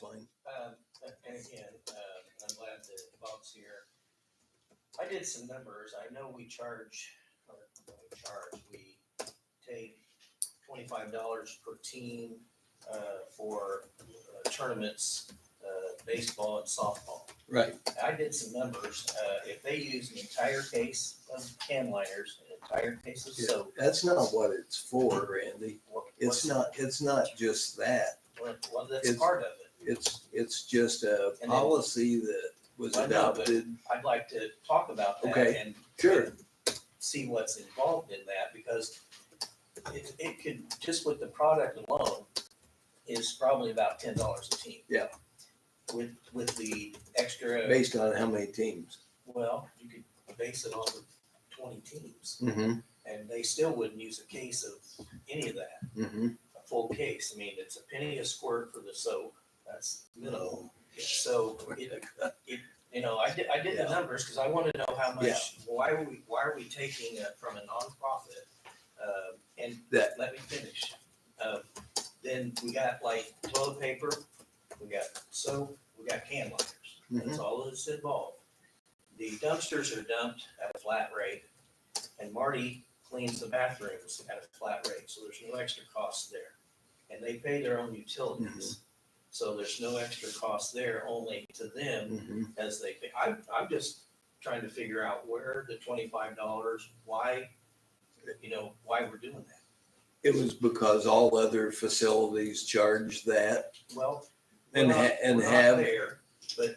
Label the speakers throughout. Speaker 1: fine.
Speaker 2: Um, and again, uh, I'm glad that Bob's here. I did some numbers. I know we charge, or we charge, we take twenty-five dollars per team, uh, for uh, tournaments, uh, baseball and softball.
Speaker 1: Right.
Speaker 2: I did some numbers. Uh, if they use an entire case of can liners, an entire case of soap.
Speaker 1: That's not what it's for, Randy.
Speaker 2: what-
Speaker 1: It's
Speaker 2: what's-
Speaker 1: not, it's not just that.
Speaker 2: what- Well, that's
Speaker 1: it's-
Speaker 2: part of it.
Speaker 1: It's, it's just a
Speaker 2: then-
Speaker 1: policy that was
Speaker 2: I know, but-
Speaker 1: adopted.
Speaker 2: I'd like to talk about that
Speaker 1: Okay.
Speaker 2: and
Speaker 1: Sure.
Speaker 2: see what's involved in that because it, it could, just with the product alone, is probably about ten dollars a team.
Speaker 1: Yeah.
Speaker 2: With, with the extra,
Speaker 1: Based on how many teams.
Speaker 2: well, you could base it on twenty teams
Speaker 1: Mm-hmm,
Speaker 2: and they still wouldn't use a case of any of that,
Speaker 1: mm-hmm.
Speaker 2: a full case. I mean, it's a penny a squirt for the soap. That's minimal. So it,
Speaker 1: Mm-hmm.
Speaker 2: You know, I did, I did the
Speaker 1: Yeah.
Speaker 2: numbers because I want to know how
Speaker 1: Yeah.
Speaker 2: much, why are we, why are we taking uh, from a nonprofit? Uh, and
Speaker 1: That-
Speaker 2: let me finish. Uh, Then we got like toilet paper, we got soap, we got can liners.
Speaker 1: Mm-hmm.
Speaker 2: That's all that's involved. The dumpsters are dumped at a flat rate and Marty cleans the bathrooms at a flat rate, so there's no extra cost there. And they pay their own utilities,
Speaker 1: Mm-hmm.
Speaker 2: so there's no extra cost there, only to them
Speaker 1: Mhm.
Speaker 2: as they think. I'm, I'm just trying to figure out where the twenty-five dollars, why, you know, why we're doing that.
Speaker 1: It was because all other facilities charge that
Speaker 2: Well. we're
Speaker 1: and,
Speaker 2: not-
Speaker 1: ha- and
Speaker 2: we're not
Speaker 1: have,
Speaker 2: there, But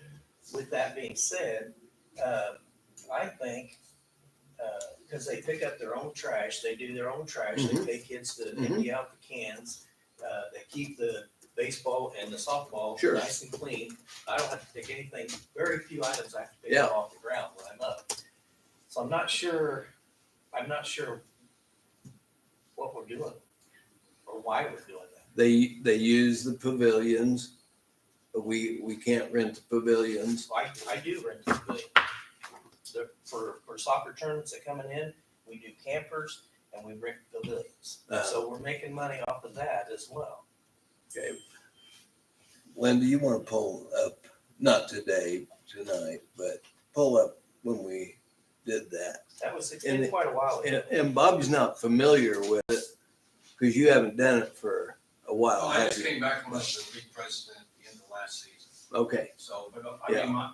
Speaker 2: with that being said, um, I think, uh, cause they pick up their own trash, they do their own trash, they
Speaker 1: Mhm.
Speaker 2: pay kids to
Speaker 1: Mhm.
Speaker 2: empty out the cans. Uh, they keep the baseball and the softball
Speaker 1: Sure.
Speaker 2: nice and clean. I don't have to pick anything, very few items I have to pick
Speaker 1: Yeah.
Speaker 2: up off the ground when I'm up. So I'm not sure, I'm not sure what we're doing or why we're doing that.
Speaker 1: they, they use the pavilions. We, we can't rent the pavilions.
Speaker 2: So I, I do rent the pavilion. The, for, for soccer tournaments that coming in, we do campers and we rent pavilions.
Speaker 1: Uh-huh.
Speaker 2: So we're making money off of that as well.
Speaker 1: Okay. Linda, you want to pull up, not today, tonight, but pull up when we did that.
Speaker 2: That was, it's
Speaker 1: And
Speaker 2: been
Speaker 1: it-
Speaker 2: quite a while
Speaker 1: Oh, And,
Speaker 2: ago.
Speaker 1: and Bob's not familiar with it because you haven't done it for a while,
Speaker 2: Oh,
Speaker 3: Well, I
Speaker 1: have
Speaker 3: just
Speaker 1: you?
Speaker 3: came back from the league president at the end of last season,
Speaker 1: Okay,
Speaker 3: so, but uh,
Speaker 1: Yeah.
Speaker 3: I mean, my,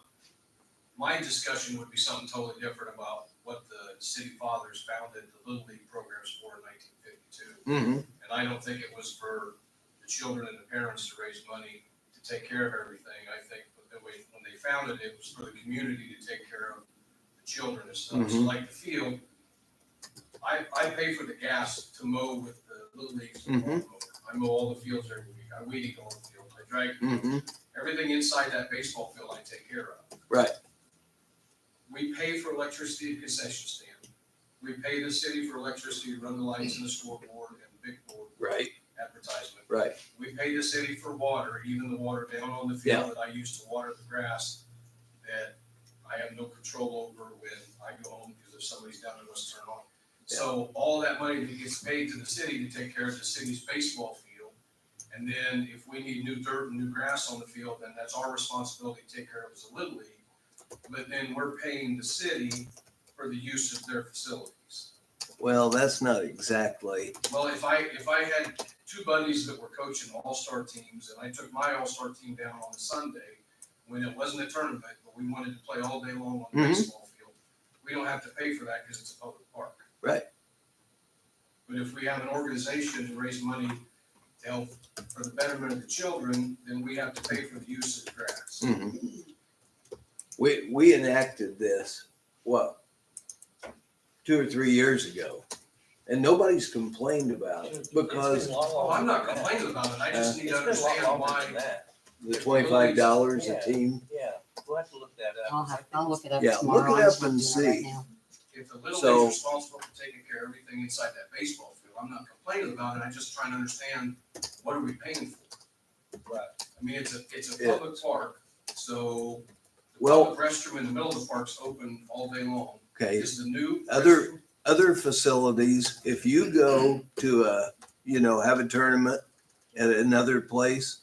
Speaker 3: my discussion would be something totally different about what the city fathers founded the Little League programs for in nineteen fifty-two.
Speaker 1: hmm
Speaker 3: And I don't think it was for the children and the parents to raise money to take care of everything. I think that the way, when they founded it, it was for the community to take care of the children and stuff. So
Speaker 1: Mhm.
Speaker 3: like the field, I, I pay for the gas to mow with the Little League's lawn mower. I mow all the fields every week. I weed eat all the fields. I drag
Speaker 1: hmm
Speaker 3: everything inside that baseball field I take care of.
Speaker 1: Right.
Speaker 3: We pay for electricity at concession stand. We pay the city for electricity to run the lights and the scoreboard and the big board
Speaker 1: right,
Speaker 3: advertisement.
Speaker 1: right.
Speaker 3: We pay the city for water, even the water down on the field that I use to water the grass that I have no control over when I go home because if somebody's down, it must turn on. So all that money that gets paid to the city to take care of the city's baseball field. And then if we need new dirt and new grass on the field, then that's our responsibility to take care of as a Little League. But then we're paying the city for the use of their facilities.
Speaker 1: Well, that's not exactly,
Speaker 3: Well, if I, if I had two buddies that were coaching all-star teams, and I took my all-star team down on a Sunday, when it wasn't a tournament, but we wanted to play all day long on the
Speaker 1: Mhm.
Speaker 3: baseball field, we don't have to pay for that because it's a public park.
Speaker 1: Right.
Speaker 3: But if we have an organization to raise money to help for the betterment of the children, then we have to pay for the use of the grass.
Speaker 1: mhm. We, we enacted this, what, two or three years ago. And nobody's complained about it
Speaker 2: It's been
Speaker 1: because
Speaker 2: a lot
Speaker 3: Well, I'm
Speaker 2: longer
Speaker 3: not
Speaker 2: than that.
Speaker 3: complaining about it, I just
Speaker 2: It's
Speaker 3: need to
Speaker 2: been a
Speaker 3: understand
Speaker 2: lot longer than
Speaker 3: why,
Speaker 2: that.
Speaker 1: the twenty-five dollars a
Speaker 2: Yeah.
Speaker 1: team.
Speaker 2: Yeah, we'll have to look that up.
Speaker 4: I'll have, I'll look it up
Speaker 1: Yeah,
Speaker 4: tomorrow.
Speaker 1: look it
Speaker 4: I'm
Speaker 1: up
Speaker 4: just
Speaker 1: and
Speaker 4: looking
Speaker 1: see.
Speaker 4: at it right now.
Speaker 3: if the Little
Speaker 1: So-
Speaker 3: League's responsible for taking care of everything inside that baseball field, I'm not complaining about it, I'm just trying to understand, what are we paying for?
Speaker 2: Right.
Speaker 3: I mean, it's a, it's a
Speaker 1: Yeah.
Speaker 3: public park, so the
Speaker 1: Well-
Speaker 3: public restroom in the middle of the park's open all day long.
Speaker 1: Okay,
Speaker 3: Is the new
Speaker 1: Other-
Speaker 3: restroom-
Speaker 1: other facilities, if you go to a, you know, have a tournament at another place,